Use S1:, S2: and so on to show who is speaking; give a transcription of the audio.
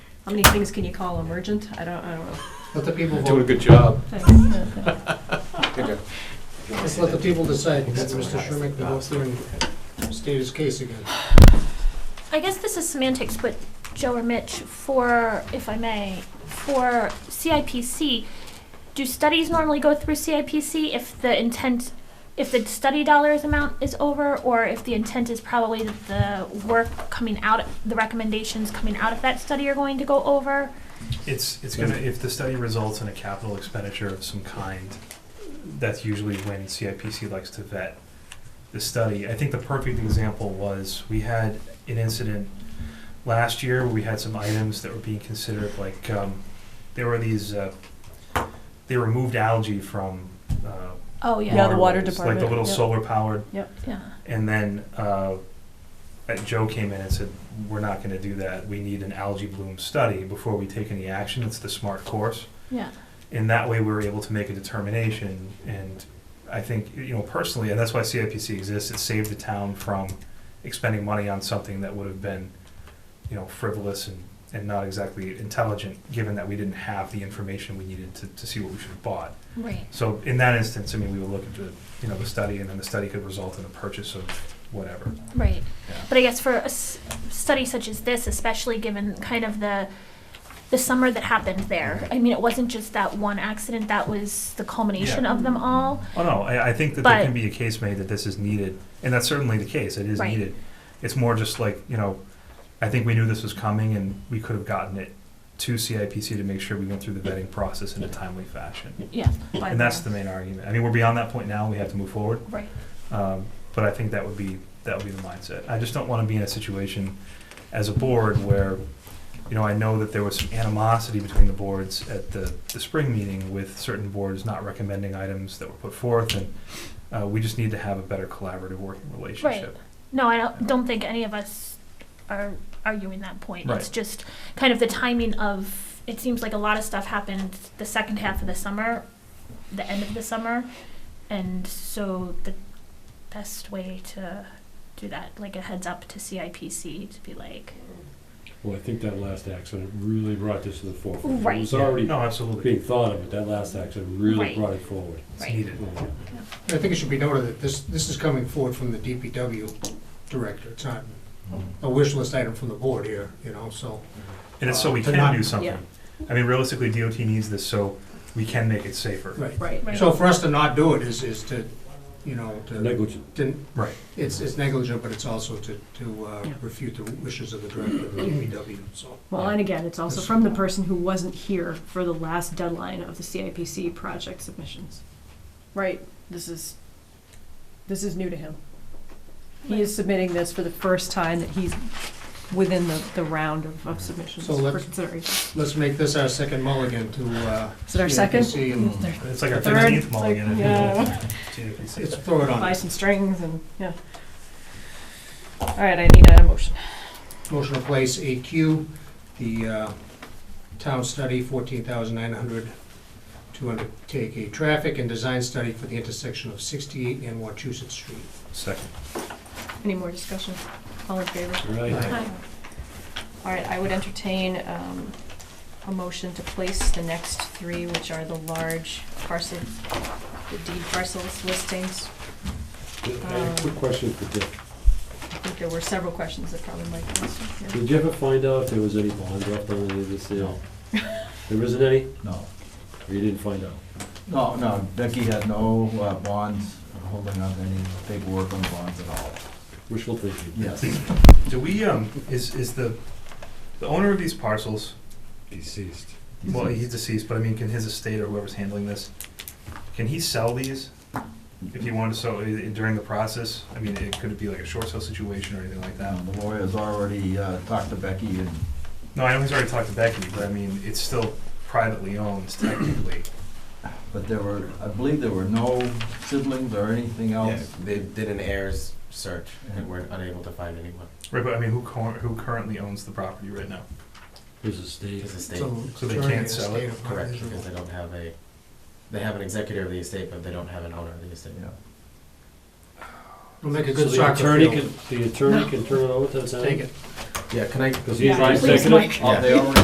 S1: How many things can you call emergent? I don't, I don't know.
S2: Let the people
S3: Doing a
S2: vote.
S3: good job.
S1: Thanks.
S2: Just let the people decide.
S3: That's
S2: Mr.
S3: what I-
S2: Schurman can go through and state his case again.
S4: I guess this is semantics, but Joe or Mitch, for, if I may, for CIPC, do studies normally go through CIPC if the intent, if the study dollars amount is over, or if the intent is probably that the work coming out, the recommendations coming out of that study are going to go over?
S5: It's, it's gonna, if the study results in a capital expenditure of some kind, that's usually when CIPC likes to vet the study. I think the perfect example was, we had an incident last year, where we had some items that were being considered, like, um, there were these, uh, they removed algae from, uh,
S4: Oh,
S1: Yeah, the water
S5: waterways, Like
S1: department,
S5: the little
S1: yep.
S5: solar powered
S4: Yeah.
S5: and then uh, uh, Joe came in and said, "We're not going to do that. We need an algae bloom study before we take any action. It's the smart course."
S4: Yeah.
S5: And that way, we were able to make a determination. And I think, you know, personally, and that's why CIPC exists. It saved the town from expending money on something that would have been, you know, frivolous and, and not exactly intelligent, given that we didn't have the information we needed to, to see what we should have bought.
S4: Right.
S5: So in that instance, I mean, we would look at the, you know, the study, and then the study could result in the purchase of whatever.
S4: Right.
S5: Yeah.
S4: But I guess for a s- study such as this, especially given kind of the the summer that happened there, I mean, it wasn't just that one accident. That was the culmination of them all.
S5: Oh, no, I, I think that there
S4: But-
S5: can be a case made that this is needed, and that's certainly the case, it is
S4: Right.
S5: needed. It's more just like, you know, I think we knew this was coming, and we could have gotten it to CIPC to make sure we went through the vetting process in a timely fashion.
S4: Yeah.
S5: And that's the main argument. I mean, we're beyond that point now, we have to move forward.
S4: Right.
S5: Um, But I think that would be, that would be the mindset. I just don't want to be in a situation as a board where, you know, I know that there was some animosity between the boards at the, the spring meeting with certain boards not recommending items that were put forth, and uh, we just need to have a better collaborative working relationship.
S4: No, I don't, don't think any of us are arguing that point. It's
S5: Right.
S4: just kind of the timing of. It seems like a lot of stuff happened the second half of the summer, the end of the summer, and so the best way to do that, like a heads up to CIPC, to be like,
S6: Well, I think that last accident really brought this to the forefront.
S4: Right.
S6: It was already
S5: No, absolutely,
S6: being thought of, but that last accident really
S4: Right.
S6: brought it forward.
S5: it's
S4: Right.
S5: needed.
S2: I think it should be noted that this, this is coming forward from the DPW director. It's not a wish list item from the board here, you know, so.
S5: And it's so we
S2: Uh, to not-
S5: can do
S1: yeah.
S5: something. I mean, realistically, DOT needs this, so we can make it safer.
S2: Right.
S1: Right.
S4: right.
S2: So for us to not do it is, is to, you know, to,
S6: Negligent.
S2: to-
S5: Right.
S2: it's, it's negligent, but it's also to, to uh,
S1: Yeah.
S2: refute the wishes of the director of the DPW, so.
S1: Well, and again, it's also from the person who wasn't here for the last deadline of the CIPC project submissions. Right, this is, this is new to him. He is submitting this for the first time that he's within the, the round of, of submissions
S2: So
S1: for
S2: let's-
S1: consideration.
S2: Let's make this our second mulligan to, uh.
S1: Is it our second?
S2: CIPC and
S5: It's like our
S1: Third,
S5: fifteenth
S1: it's like,
S5: mulligan.
S1: yeah.
S2: Let's
S5: It's
S2: throw it
S1: Buy
S2: on.
S1: some strings and, yeah. All right, I need a motion.
S2: Motion to place AQ, the uh, town study, fourteen thousand nine hundred, to undertake a traffic and design study for the intersection of sixty-eight and Wachusett Street.
S5: Second.
S1: Any more discussion? All in favor?
S6: Right.
S4: Hi.
S1: All right, I would entertain um, a motion to place the next three, which are the large parcel, the deed parcels listings.
S6: I have a quick question for Dick.
S1: I think there were several questions that probably might be answered. yeah.
S6: Did you ever find out if there was any bond left on any of this sale? There isn't any?
S7: No,
S6: Or you didn't find out?
S7: no, no, Becky had no uh, bonds, holding up any paperwork on bonds at all.
S6: Wishful thinking.
S7: Yes.
S5: Do we, um, is, is the, the owner of these parcels,
S6: Deceased.
S5: well, he's deceased, but I mean, can his estate or whoever's handling this, can he sell these? If he wanted to sell it during the process, I mean, it could be like a short sale situation or anything like that.
S7: Now, the lawyer's already uh, talked to Becky and,
S5: No, I know he's already talked to Becky, but I mean, it's still privately owned technically.
S7: but there were, I believe there were no siblings or anything
S8: Yeah,
S7: else.
S8: they did an heirs search and were unable to find anyone.
S5: Right, but I mean, who cor- who currently owns the property right now?
S6: His estate.
S8: It's a state,
S2: So
S5: So they
S2: Attorney
S5: can't
S2: of
S5: sell
S2: State
S5: it?
S2: of
S8: correct,
S2: Rhode
S8: because they don't have a, they have an executor of the estate, but they don't have an owner of the estate.
S7: Yeah.
S2: We'll make a
S6: So
S2: good
S6: the
S2: soccer
S6: attorney
S2: field.
S6: can, the attorney can turn it over to the town?
S2: Take it.
S8: Yeah, can I?
S6: Because he's
S1: Yeah,
S6: the
S1: please,
S6: executive?
S1: Mike.
S7: Oh, they already